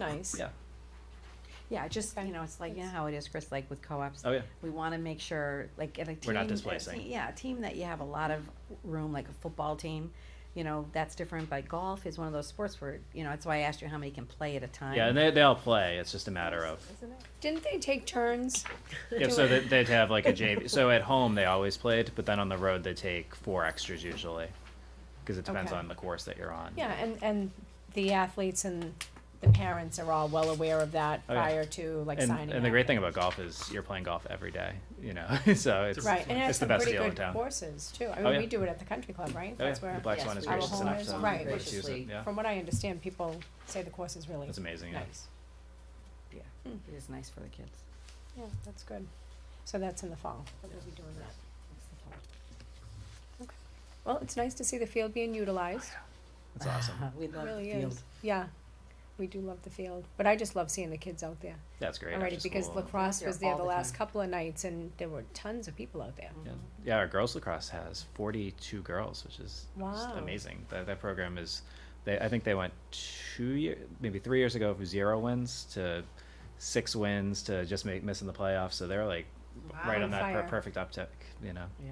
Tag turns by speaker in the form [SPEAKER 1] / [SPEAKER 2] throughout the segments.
[SPEAKER 1] Nice.
[SPEAKER 2] Yeah.
[SPEAKER 1] Yeah, I just, you know, it's like, you know how it is, Chris, like with co-ops.
[SPEAKER 2] Oh, yeah.
[SPEAKER 1] We wanna make sure, like, in a team.
[SPEAKER 2] We're not
[SPEAKER 1] a
[SPEAKER 2] displacing.
[SPEAKER 1] te- Yeah, a team that you have a lot of room, like a football team, you know, that's different, but golf is one of those sports where, you know, that's why I asked you how many can play at a time.
[SPEAKER 2] Yeah, and they, they all play. It's just a matter of
[SPEAKER 3] Didn't they take turns?
[SPEAKER 2] yeah. So they, they'd have like a JV. So at home they always played, but then on the road they take four extras usually, because it depends
[SPEAKER 3] Okay.
[SPEAKER 2] on the course that you're on.
[SPEAKER 3] Yeah, and, and the athletes and the parents are all well aware of that
[SPEAKER 2] Oh, yeah.
[SPEAKER 3] prior to like
[SPEAKER 2] And,
[SPEAKER 3] signing
[SPEAKER 2] and the great
[SPEAKER 3] up.
[SPEAKER 2] thing about golf is you're playing golf every day, you know. so it's
[SPEAKER 3] Right, and it has
[SPEAKER 2] it's the
[SPEAKER 3] some
[SPEAKER 2] best
[SPEAKER 3] pretty
[SPEAKER 2] deal in
[SPEAKER 3] good
[SPEAKER 2] town.
[SPEAKER 3] courses too. I
[SPEAKER 2] Oh,
[SPEAKER 3] mean,
[SPEAKER 2] yeah.
[SPEAKER 3] we do it at the country club, right?
[SPEAKER 2] Oh, yeah.
[SPEAKER 3] That's where,
[SPEAKER 2] The black swan
[SPEAKER 1] Yes,
[SPEAKER 2] is
[SPEAKER 1] our
[SPEAKER 2] gracious
[SPEAKER 1] whole
[SPEAKER 2] enough
[SPEAKER 1] is
[SPEAKER 2] to
[SPEAKER 3] right.
[SPEAKER 2] let us use it.
[SPEAKER 1] graciously-
[SPEAKER 2] Yeah,
[SPEAKER 3] from what I understand, people say the course is really
[SPEAKER 2] that's amazing. Yeah.
[SPEAKER 3] nice.
[SPEAKER 1] Yeah, it is nice for the kids.
[SPEAKER 3] Yeah, that's good. So that's in the fall. that we'll be doing that. Well, it's nice to see the field being utilized.
[SPEAKER 2] That's awesome.
[SPEAKER 1] We love the
[SPEAKER 3] Really
[SPEAKER 1] field.
[SPEAKER 3] is. Yeah, we do love the field, but I just love seeing the kids out there.
[SPEAKER 2] That's great.
[SPEAKER 3] already
[SPEAKER 2] after
[SPEAKER 3] because
[SPEAKER 2] school.
[SPEAKER 3] lacrosse
[SPEAKER 1] They're
[SPEAKER 3] was there
[SPEAKER 1] all
[SPEAKER 3] the
[SPEAKER 1] the
[SPEAKER 3] last
[SPEAKER 1] time.
[SPEAKER 3] couple of nights and there were tons of people out there.
[SPEAKER 2] Yeah. yeah, our girls lacrosse has 42 girls, which is just
[SPEAKER 3] Wow.
[SPEAKER 2] amazing. That, that program is, they, I think they went two years, maybe three years ago from zero wins to six wins to just make, missing the playoffs. So they're like right
[SPEAKER 3] Wow.
[SPEAKER 2] on that per-
[SPEAKER 3] Fire.
[SPEAKER 2] perfect uptick, you know.
[SPEAKER 1] Yeah.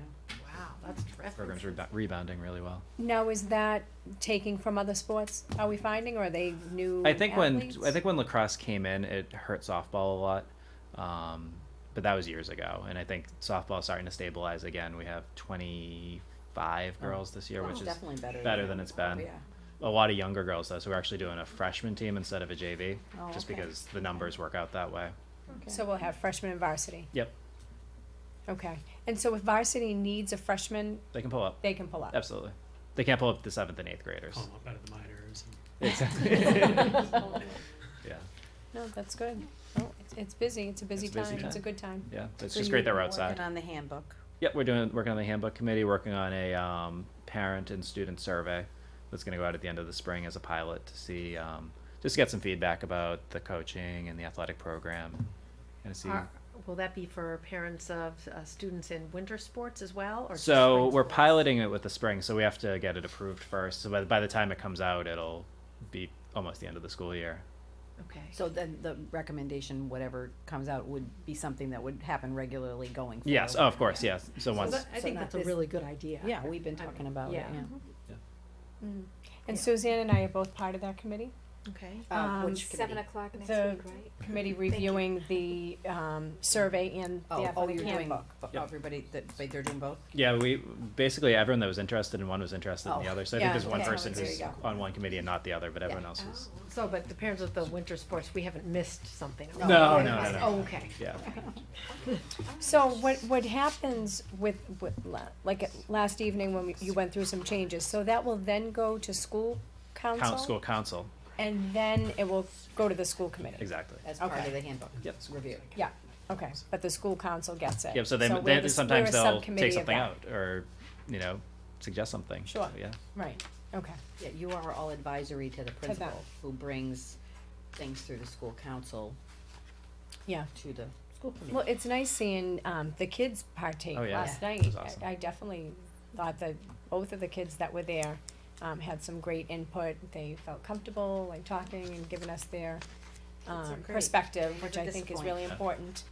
[SPEAKER 4] Wow, that's
[SPEAKER 2] Program's
[SPEAKER 4] terrific.
[SPEAKER 2] rebo- rebounding really well.
[SPEAKER 3] Now, is that taking from other sports? Are we finding, or are they new?
[SPEAKER 2] I think
[SPEAKER 3] athletes?
[SPEAKER 2] when I think when lacrosse came in, it hurt softball a lot, um, but that was years ago. And I think softball's starting to stabilize again. We have 25
[SPEAKER 3] Oh.
[SPEAKER 2] girls this year, which is
[SPEAKER 1] Definitely better.
[SPEAKER 2] better than it's been.
[SPEAKER 1] Yeah.
[SPEAKER 2] a lot of younger girls though, so we're actually doing a freshman team instead of a JV,
[SPEAKER 3] Oh,
[SPEAKER 2] just
[SPEAKER 3] okay.
[SPEAKER 2] because the numbers work out that way.
[SPEAKER 3] so we'll have freshmen and varsity.
[SPEAKER 2] Yep,
[SPEAKER 3] Okay, and so if varsity needs a freshman,
[SPEAKER 2] they can pull up.
[SPEAKER 3] they can pull up.
[SPEAKER 2] Absolutely, they can't pull up the seventh and eighth graders.
[SPEAKER 4] Call 'em up out of the minors. and-
[SPEAKER 2] Yeah,
[SPEAKER 3] No, that's good. Oh, it's, it's busy. It's a busy
[SPEAKER 2] It's a
[SPEAKER 3] time.
[SPEAKER 2] busy
[SPEAKER 3] It's a
[SPEAKER 2] time.
[SPEAKER 3] good time.
[SPEAKER 2] yeah, it's
[SPEAKER 1] So
[SPEAKER 2] just
[SPEAKER 1] you
[SPEAKER 2] great that
[SPEAKER 1] were
[SPEAKER 2] we're
[SPEAKER 1] working
[SPEAKER 2] outside.
[SPEAKER 1] On the handbook.
[SPEAKER 2] Yep, we're doing working on the handbook committee, working on a um, parent and student survey that's going to go out at the end of the spring as a pilot to see um, just get some feedback about the coaching and the athletic program, and see.
[SPEAKER 4] Are- Will that be for parents of uh, students in winter sports as well? or just
[SPEAKER 2] So
[SPEAKER 4] spring
[SPEAKER 2] we're
[SPEAKER 4] sports?
[SPEAKER 2] piloting it with the spring, so we have to get it approved first. So by, by the time it comes out, it'll be almost the end of the school year.
[SPEAKER 3] Oh,
[SPEAKER 4] Okay.
[SPEAKER 1] So then the recommendation, whatever comes out, would be something that would happen regularly going forward.
[SPEAKER 2] Yes, oh, of course, yes. So
[SPEAKER 4] So
[SPEAKER 2] once,
[SPEAKER 4] that- I
[SPEAKER 1] so
[SPEAKER 4] think
[SPEAKER 1] not
[SPEAKER 4] that's a
[SPEAKER 1] this-
[SPEAKER 4] really good idea.
[SPEAKER 1] Yeah, we've been
[SPEAKER 4] I mean,
[SPEAKER 1] talking about it,
[SPEAKER 4] yeah.
[SPEAKER 1] yeah.
[SPEAKER 3] And
[SPEAKER 4] Yeah.
[SPEAKER 3] Suzanne Mm. and I are both part of that committee.
[SPEAKER 4] Okay.
[SPEAKER 1] Uh,
[SPEAKER 3] Um,
[SPEAKER 1] which
[SPEAKER 5] Seven
[SPEAKER 1] committee?
[SPEAKER 5] o'clock next
[SPEAKER 3] the-
[SPEAKER 5] week, right?
[SPEAKER 3] Committee
[SPEAKER 5] you.
[SPEAKER 3] reviewing the um, survey and the
[SPEAKER 1] Oh, oh,
[SPEAKER 3] athletic
[SPEAKER 1] you're doing,
[SPEAKER 3] handbook.
[SPEAKER 1] fo-
[SPEAKER 2] Yep.
[SPEAKER 1] everybody, that, but they're doing both?
[SPEAKER 2] yeah, we, basically everyone that was interested in one was interested in the
[SPEAKER 1] Oh,
[SPEAKER 2] other. So I
[SPEAKER 3] yeah,
[SPEAKER 2] think there's one
[SPEAKER 3] okay.
[SPEAKER 2] person
[SPEAKER 3] There you
[SPEAKER 2] who's
[SPEAKER 1] go.
[SPEAKER 2] on one committee and not the other, but everyone else is,
[SPEAKER 4] Oh, So, but the parents of the winter sports, we haven't missed something.
[SPEAKER 1] No,
[SPEAKER 2] No, no, no, no.
[SPEAKER 4] Oh, okay.
[SPEAKER 2] yeah.
[SPEAKER 3] So what, what happens with, with, la- like, uh, last evening when we- you went through some changes, so that will then go to school
[SPEAKER 2] Coun-
[SPEAKER 3] council?
[SPEAKER 2] School council,
[SPEAKER 3] And then it will go to the school committee?
[SPEAKER 2] exactly.
[SPEAKER 1] As part
[SPEAKER 3] Okay.
[SPEAKER 1] of the handbook
[SPEAKER 2] Yep.
[SPEAKER 1] review.
[SPEAKER 3] Yeah, okay, but the school council gets it?
[SPEAKER 2] Yep, so they,
[SPEAKER 3] we're
[SPEAKER 2] they-
[SPEAKER 3] the s-
[SPEAKER 2] sometimes
[SPEAKER 3] we're a
[SPEAKER 2] they'll
[SPEAKER 3] subcommittee of
[SPEAKER 2] take something
[SPEAKER 3] that.
[SPEAKER 2] out or, you know, suggest something.
[SPEAKER 3] Sure.
[SPEAKER 2] So, Yeah,
[SPEAKER 3] Right, okay,
[SPEAKER 1] Yeah, you are all advisory to the
[SPEAKER 3] them.
[SPEAKER 1] principal, who brings things through the school council
[SPEAKER 3] yeah.
[SPEAKER 1] to the school committee.
[SPEAKER 3] Well, it's nice seeing, um, the kids partake
[SPEAKER 2] Oh, yeah.
[SPEAKER 3] last
[SPEAKER 2] Yeah.
[SPEAKER 3] night.
[SPEAKER 2] It was awesome.
[SPEAKER 3] I I definitely thought that both of the kids that were there, um, had some great input. They felt comfortable, like, talking and giving us their, um,
[SPEAKER 1] great.
[SPEAKER 3] perspective,
[SPEAKER 1] Never
[SPEAKER 3] which I think is
[SPEAKER 1] disappoint.
[SPEAKER 3] really
[SPEAKER 2] Yeah.
[SPEAKER 3] important,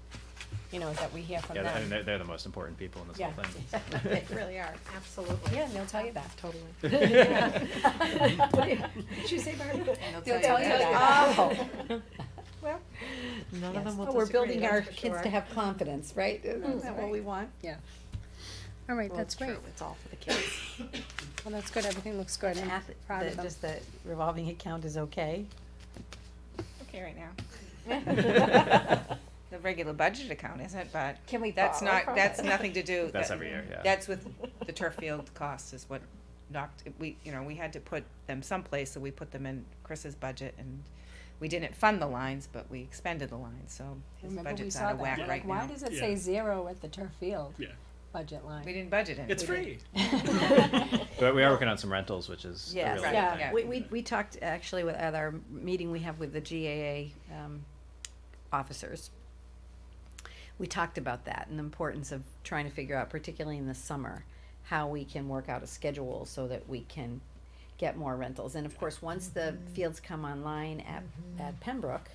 [SPEAKER 3] you know, that we hear from
[SPEAKER 2] yeah,
[SPEAKER 3] them.
[SPEAKER 2] th- and they're, they're the most important people in this whole
[SPEAKER 3] Yeah.
[SPEAKER 2] thing.
[SPEAKER 4] They really are, absolutely.
[SPEAKER 3] Yeah, and they'll tell you that.
[SPEAKER 4] Totally.
[SPEAKER 1] Did you say, Barbara?
[SPEAKER 3] They'll tell you that.
[SPEAKER 1] Oh.
[SPEAKER 4] None of
[SPEAKER 1] Yes.
[SPEAKER 4] them will
[SPEAKER 1] Oh, we're
[SPEAKER 4] disagree,
[SPEAKER 1] building
[SPEAKER 4] that's
[SPEAKER 1] our
[SPEAKER 4] for
[SPEAKER 1] kids
[SPEAKER 4] sure.
[SPEAKER 1] to have confidence, right? Isn't that what
[SPEAKER 4] right.
[SPEAKER 1] we want? Yeah.
[SPEAKER 3] All right,
[SPEAKER 4] Well,
[SPEAKER 3] that's
[SPEAKER 4] it's
[SPEAKER 3] great.
[SPEAKER 4] true, It's all for the kids.
[SPEAKER 3] Well, that's good. Everything looks good. I'm proud of them.
[SPEAKER 1] Just the revolving account is okay?
[SPEAKER 6] okay right now. The regular budget account isn't, but
[SPEAKER 1] Can we
[SPEAKER 6] that's
[SPEAKER 1] borrow
[SPEAKER 6] not,
[SPEAKER 1] from
[SPEAKER 6] that's
[SPEAKER 1] it?
[SPEAKER 6] nothing to do.
[SPEAKER 2] That's
[SPEAKER 6] that-
[SPEAKER 2] every year, yeah.
[SPEAKER 6] That's with the turf field costs is what knocked, we, you know, we had to put them someplace, so we put them in Chris's budget and we didn't fund the lines, but we expended the lines, so his
[SPEAKER 3] Remember, we
[SPEAKER 6] budget's
[SPEAKER 3] saw
[SPEAKER 6] out of
[SPEAKER 3] that.
[SPEAKER 6] whack
[SPEAKER 3] We're Like,
[SPEAKER 6] right
[SPEAKER 3] why
[SPEAKER 6] now.
[SPEAKER 3] does it
[SPEAKER 4] Yeah.
[SPEAKER 3] say zero at the turf field
[SPEAKER 4] Yeah.
[SPEAKER 3] budget
[SPEAKER 6] We
[SPEAKER 3] line?
[SPEAKER 6] didn't budget it.
[SPEAKER 4] It's
[SPEAKER 6] We didn't.
[SPEAKER 4] free.
[SPEAKER 2] But we are working on some rentals, which is a
[SPEAKER 1] Yes.
[SPEAKER 2] really
[SPEAKER 6] Right,
[SPEAKER 2] good
[SPEAKER 3] Yeah.
[SPEAKER 2] thing.
[SPEAKER 6] yeah.
[SPEAKER 1] We, we, we talked actually with, at our meeting we have with the GAA, um, officers. We talked about that and the importance of trying to figure out, particularly in the summer, how we can work out a schedule so that we can get more rentals. And of course, once the fields come online at, at Pembroke,